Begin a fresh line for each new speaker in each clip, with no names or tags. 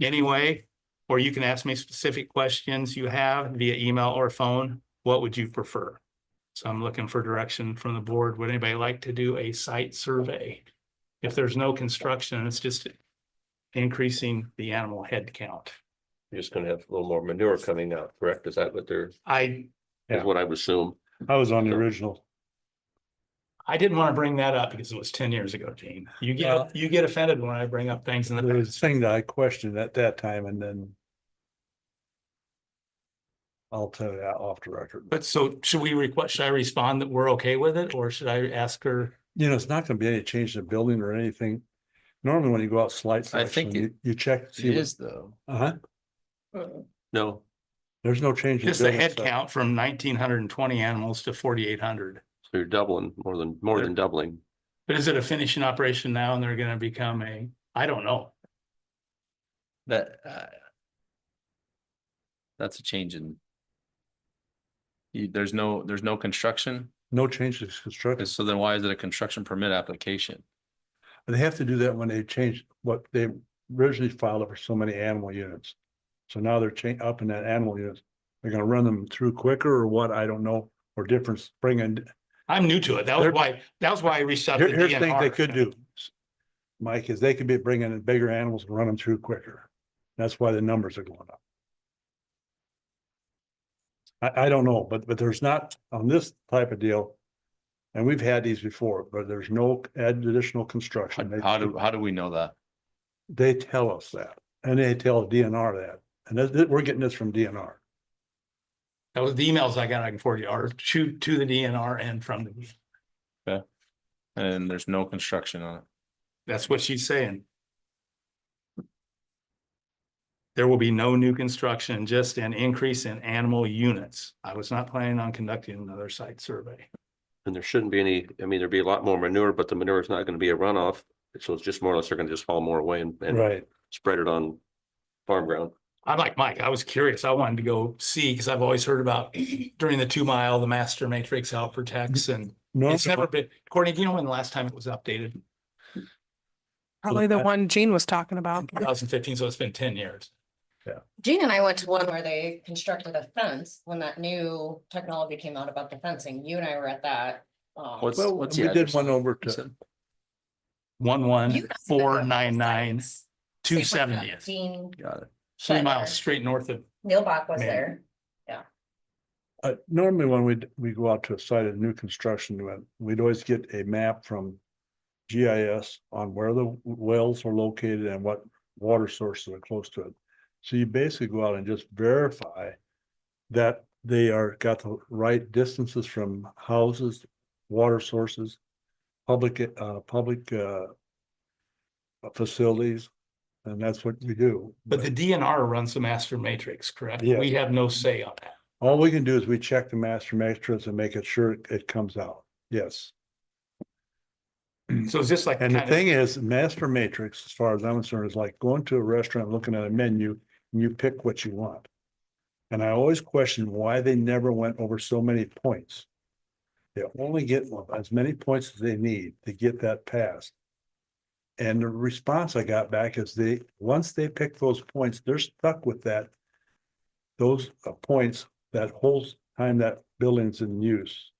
anyway, or you can ask me specific questions you have via email or phone. What would you prefer? So I'm looking for direction from the board. Would anybody like to do a site survey? If there's no construction, it's just increasing the animal head count.
You're just gonna have a little more manure coming out, correct? Is that what they're,
I,
is what I would assume?
I was on the
So-
original.
I didn't want to bring that up because it was ten years ago, Gene. You
Well-
get, you get offended when I bring up things in the
There was a thing that I questioned at that time and then. I'll tell you that off the record.
But so should we request, should I respond that we're okay with it or should I ask her?
You know, it's not gonna be any change in the building or anything. Normally when you go out slight
I
selection,
think
you, you check.
It is though.
Uh huh.
No,
There's no change. in
Just the
building
head
size.
count from nineteen hundred and twenty animals to forty-eight hundred.
so you're doubling, more than, more than doubling.
But is it a finishing operation now and they're gonna become a, I don't know.
That, uh. That's a change in. You, there's no, there's no construction,
No changes constructed.
so then why is it a construction permit application?
They have to do that when they change what they originally filed it for so many animal units. So now they're changing up in that animal units. They're gonna run them through quicker or what? I don't know, or difference, bring in
I'm new to it. That was
There-
why, that was why I reached out to
Here, here's the thing they
DNR.
could do. Mike, is they could be bringing in bigger animals and run them through quicker. That's why the numbers are going up. I, I don't know, but, but there's not on this type of deal. And we've had these before, but there's no additional
How
construction. They-
how do, how do we know that?
They tell us that and they tell DNR that. And that, that- we're getting this from DNR.
That was the emails I got, I can forward you, or to, to the DNR and from the,
And there's no construction on it.
that's what she's saying. There will be no new construction, just an increase in animal units. I was not planning on conducting another site survey.
And there shouldn't be any, I mean, there'd be a lot more manure, but the manure is not gonna be a runoff. So it's just more or less, they're gonna just haul more away and, and
Right.
spread it on farm ground.
I'm like Mike, I was curious. I wanted to go see because I've always heard about during the two mile, the master matrix out
Mm-hmm.
protects and it's never
Normally,
been, Courtney, do you know when the last time it was updated?
Probably the
I-
one Gene was talking about.
Two thousand fifteen, so it's been ten years.
Gene and I went to one where they constructed a fence when that new technology came out about the fencing. You and I were at that. um,
What's,
well,
what's
we
the
did
address?
one over
You
to.
said?
One,
you
one,
guys have been
four,
to
nine, nine,
sites.
two
Same with that
seventieth,
Gene
Got it.
three
Shetler.
miles straight north of,
Neil Bach was
Man.
there.
Uh, normally when we, we go out to a site of new construction, we- we'd always get a map from GIS on where the wells are located and what water sources are close to it. So you basically go out and just verify that they are, got the right distances from houses, water sources, public, uh, public, uh, facilities, and that's what we do.
but the DNR runs the master matrix, correct?
Yeah.
We have no say on that.
All we can do is we check the master matrix and make it sure it- it comes out. Yes.
So it's just like.
Mm-hmm. And the
kind of-
thing is, master matrix, as far as I'm concerned, is like going to a restaurant, looking at a menu, and you pick what you want. And I always question why they never went over so many points. They only get as many points as they need to get that passed. And the response I got back is they, once they pick those points, they're stuck with that. Those uh, points that whole time that building's in use.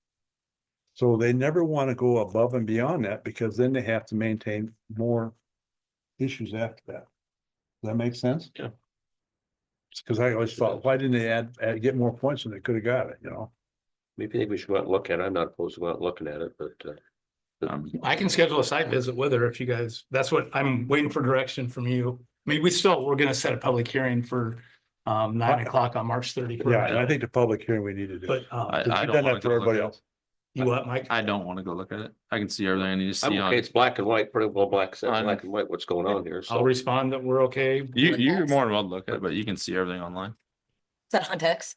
So they never want to go above and beyond that because then they have to maintain more issues after that. Does that make sense?
Yeah.
Because I always thought, why didn't they add, add, get more points when they could have got it, you know?
Maybe think we should go out and look at it. I'm not opposed to go out and looking at it, but uh,
Um,
I can schedule a site visit with her if you guys, that's what I'm waiting for direction from you. I mean, we still, we're gonna set a public hearing for um nine
I-
o'clock on March thirty.
Yeah, and I think the public hearing we need to do.
But um,
I,
Because
I
you've
don't
done
wanna
that
go
for
look
everybody
at it.
else.
you what, Mike?
I don't wanna go look at it. I can see everything I need to
I'm
see on
okay.
it.
It's black and white, pretty well black,
On-
black and white, what's going on here.
I'll
So
respond that we're okay.
You,
Like
you're
that's-
more than welcome to look at it, but you can see everything online.
Is that on text?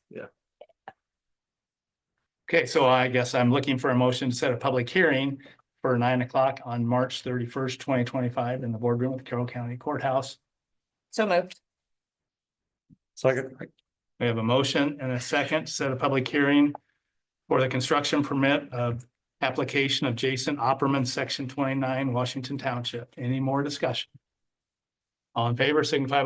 Okay, so I guess I'm looking for a motion to set a public hearing for nine o'clock on March thirty-first, twenty twenty-five in the boardroom of Carroll County Courthouse.
So moved.
Second,
We have a motion and a second, to set a public hearing for the construction permit of application of Jason Opperman, section twenty-nine, Washington Township. Any more discussion? All in favor, signify by